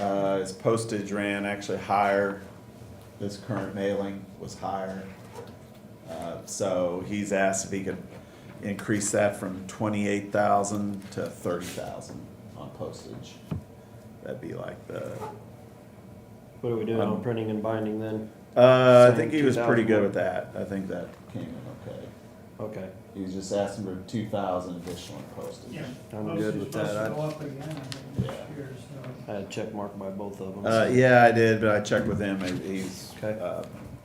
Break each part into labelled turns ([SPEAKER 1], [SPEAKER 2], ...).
[SPEAKER 1] Uh, his postage ran actually higher, this current mailing was higher. Uh, So he's asked if he could increase that from twenty-eight thousand to thirty thousand on postage. That'd be like the,
[SPEAKER 2] What are we doing
[SPEAKER 1] Um,
[SPEAKER 2] on printing and binding then?
[SPEAKER 1] uh, I
[SPEAKER 2] Same
[SPEAKER 1] think he was
[SPEAKER 2] 2,000
[SPEAKER 1] pretty good with that, I think that came in okay.
[SPEAKER 2] Okay,
[SPEAKER 1] He was just asking for two thousand additional in postage.
[SPEAKER 3] Yeah.
[SPEAKER 2] I'm good with that.
[SPEAKER 3] Supposed to go
[SPEAKER 2] I
[SPEAKER 3] up again, I think, this
[SPEAKER 1] Yeah.
[SPEAKER 3] year, so.
[SPEAKER 2] I had a check mark by both of them.
[SPEAKER 1] Uh, yeah, I did, but I checked with him, and he's,
[SPEAKER 2] Okay.
[SPEAKER 1] uh,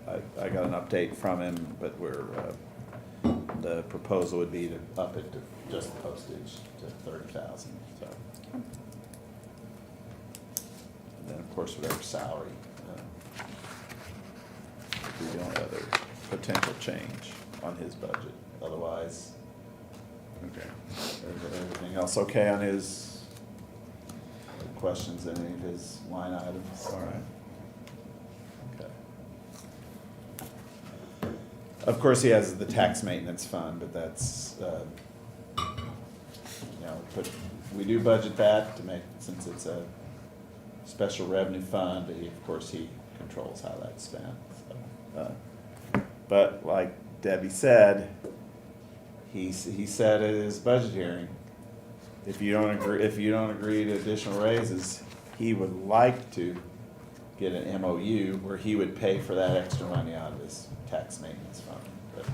[SPEAKER 1] I, I got an update from him, but we're, uh, the proposal would be to up it to just postage to thirty thousand, so. And then, of course, whatever salary, uh, would be the only other potential change on his budget, otherwise. Okay. Everything else okay on his any Questions, in any of his line items? All right. Okay. Of course, he has the tax maintenance fund, but that's, uh, you know, but we do budget that to make, since it's a special revenue fund, but he, of course, he controls how that's spent, so. uh, But like Debbie said, he, s- he said at his budget hearing, if you don't agree, if you don't agree to additional raises, he would like to get an MOU where he would pay for that extra money out of his tax maintenance fund. But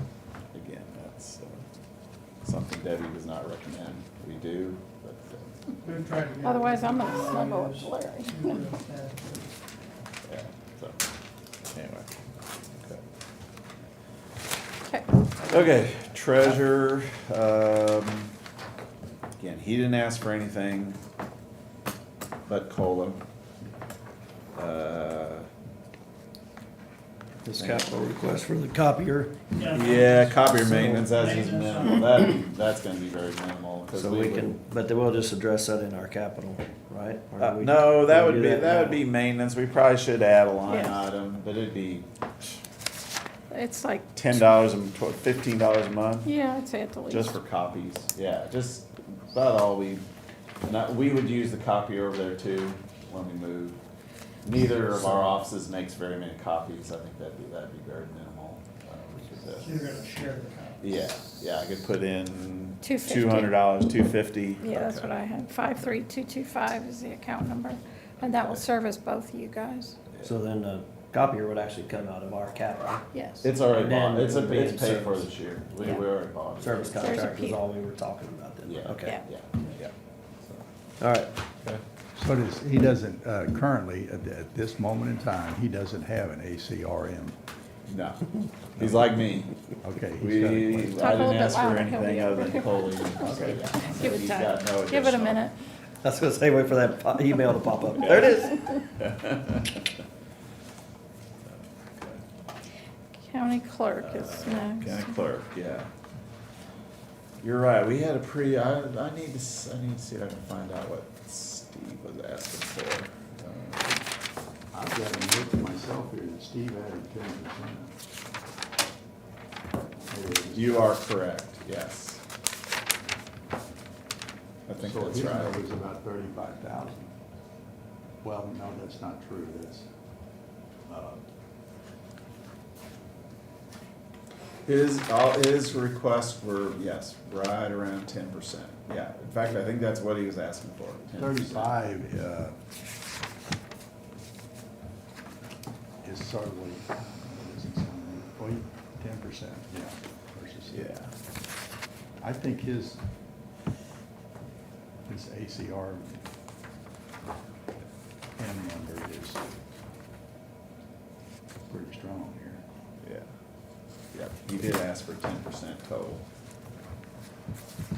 [SPEAKER 1] again, that's uh, something Debbie does not recommend we do, but,
[SPEAKER 3] We've tried to get-
[SPEAKER 4] Otherwise, I'm gonna snuggle with Larry.
[SPEAKER 1] uh, yeah, so, anyway. Okay.
[SPEAKER 4] Okay.
[SPEAKER 1] Okay, treasurer, um, again, he didn't ask for anything but COLA. Uh,
[SPEAKER 2] This capital request for the copier,
[SPEAKER 1] Yeah, copier maintenance, that's just
[SPEAKER 3] Maintenance.
[SPEAKER 1] minimal, that, that's gonna be very minimal, cause
[SPEAKER 2] so
[SPEAKER 1] we
[SPEAKER 2] we
[SPEAKER 1] would-
[SPEAKER 2] can, but then we'll just address that in our capital, right? Or do
[SPEAKER 1] Uh,
[SPEAKER 2] we-
[SPEAKER 1] no, that
[SPEAKER 2] we
[SPEAKER 1] would
[SPEAKER 2] do
[SPEAKER 1] be, that would
[SPEAKER 2] now?
[SPEAKER 1] be maintenance, we probably should add a line
[SPEAKER 4] Yeah.
[SPEAKER 1] item, but it'd be
[SPEAKER 4] It's like,
[SPEAKER 1] ten dollars and tw- fifteen dollars a month.
[SPEAKER 4] yeah, I'd say at the least.
[SPEAKER 1] Just for copies, yeah, just about all we, and I, we would use the copier over there too when we move. Neither of our offices makes very many copies, I think that'd be, that'd be very minimal. Uh, we
[SPEAKER 3] So
[SPEAKER 1] could, uh,
[SPEAKER 3] You're gonna share the copy.
[SPEAKER 1] Yeah, yeah, I could put in
[SPEAKER 4] Two fifty.
[SPEAKER 1] two hundred dollars, two fifty.
[SPEAKER 4] Yeah, that's what I had. Five three two two five is the account number, and that will
[SPEAKER 1] Okay.
[SPEAKER 4] service both of you guys.
[SPEAKER 2] So then the copier would actually come out of our capital.
[SPEAKER 4] Yes.
[SPEAKER 1] It's already
[SPEAKER 2] And
[SPEAKER 1] bought,
[SPEAKER 2] then
[SPEAKER 1] it's, a-
[SPEAKER 2] it'll be
[SPEAKER 1] it's
[SPEAKER 2] in
[SPEAKER 1] paid for
[SPEAKER 2] service.
[SPEAKER 1] this year, we, we
[SPEAKER 4] Yeah.
[SPEAKER 1] already bought it.
[SPEAKER 2] Service
[SPEAKER 4] There's a
[SPEAKER 2] contract was
[SPEAKER 4] P.
[SPEAKER 2] all we were talking about then,
[SPEAKER 1] Yeah.
[SPEAKER 2] okay.
[SPEAKER 1] Yeah, yeah.
[SPEAKER 2] All right,
[SPEAKER 5] So does, he doesn't, uh, currently, at, th- at this moment in time, he doesn't have an ACRM.
[SPEAKER 1] No, he's like me,
[SPEAKER 5] Okay. he's
[SPEAKER 1] We,
[SPEAKER 5] got
[SPEAKER 1] I
[SPEAKER 5] it.
[SPEAKER 1] didn't
[SPEAKER 4] Talk a little bit
[SPEAKER 1] ask for
[SPEAKER 4] louder, he'll
[SPEAKER 1] anything
[SPEAKER 4] be
[SPEAKER 1] other
[SPEAKER 4] over.
[SPEAKER 1] than Coley. Okay, yeah.
[SPEAKER 4] Give it
[SPEAKER 1] He's
[SPEAKER 4] time.
[SPEAKER 1] got no
[SPEAKER 4] Give it a
[SPEAKER 1] additional.
[SPEAKER 4] minute.
[SPEAKER 2] I was gonna say, wait for that po- email to pop up. There it is.
[SPEAKER 4] County clerk is next.
[SPEAKER 1] Uh, County clerk, yeah. You're right, we had a pretty, I, I need to, s- I need to see if I can find out what Steve was asking for. Uh,
[SPEAKER 5] I've got a note to myself here that Steve added ten percent.
[SPEAKER 1] You are correct, yes. I think that's
[SPEAKER 5] So his
[SPEAKER 1] right.
[SPEAKER 5] number's about thirty-five thousand. Well, no, that's not true, that's, uh,
[SPEAKER 1] His, all, his requests were, yes, right around ten percent, yeah. In fact, I think that's what he was asking for, 10%.
[SPEAKER 5] Thirty-five, uh, is certainly, ten percent, yeah, versus.
[SPEAKER 1] Yeah.
[SPEAKER 5] I think his, his ACR M number is pretty strong here.
[SPEAKER 1] Yeah. Yep, you did ask for ten percent total.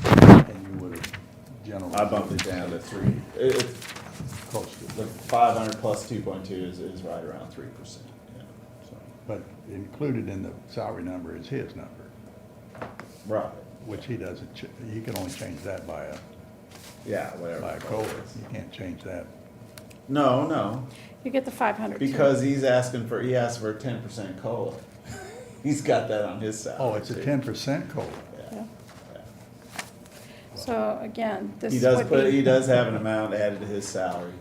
[SPEAKER 5] And you would have generally.
[SPEAKER 1] I bumped it down to three. It, it's
[SPEAKER 5] Close to,
[SPEAKER 1] the five hundred plus two point two is, is right around three percent, yeah, so.
[SPEAKER 5] but included in the salary number is his number,
[SPEAKER 1] Right,
[SPEAKER 5] which he doesn't, ch- you can only change that by a
[SPEAKER 1] yeah, whatever.
[SPEAKER 5] by a COLA. You can't change that.
[SPEAKER 1] No, no,
[SPEAKER 4] You get the five hundred.
[SPEAKER 1] because he's asking for, he asked for a ten percent COLA. He's got that on his salary.
[SPEAKER 5] Oh, it's a
[SPEAKER 1] too.
[SPEAKER 5] ten percent COLA.
[SPEAKER 1] Yeah, yeah.
[SPEAKER 4] So again, this
[SPEAKER 1] He does
[SPEAKER 4] would
[SPEAKER 1] put,
[SPEAKER 4] be-
[SPEAKER 1] he does have an amount added to his salary